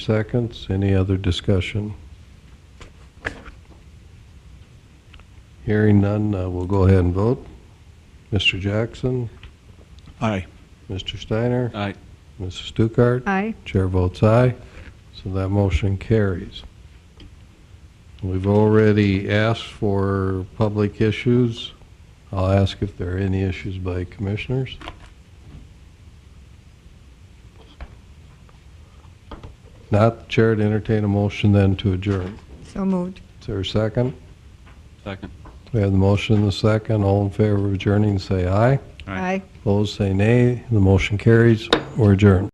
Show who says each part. Speaker 1: seconds. Any other discussion? Hearing none, uh, we'll go ahead and vote. Mr. Jackson,
Speaker 2: Aye.
Speaker 1: Mr. Steiner,
Speaker 2: Aye.
Speaker 1: Mrs. Stuckert.
Speaker 3: Aye.
Speaker 1: Chair votes aye, so that motion carries. We've already asked for public issues. I'll ask if there are any issues by commissioners. Not, the chair to entertain a motion then to adjourn.
Speaker 3: So moved.
Speaker 1: Is there a second?
Speaker 2: Second.
Speaker 1: We have the motion and the second. All in favor of adjourning, say aye.
Speaker 2: Aye.
Speaker 1: Opposed, say nay. The motion carries. We're adjourned.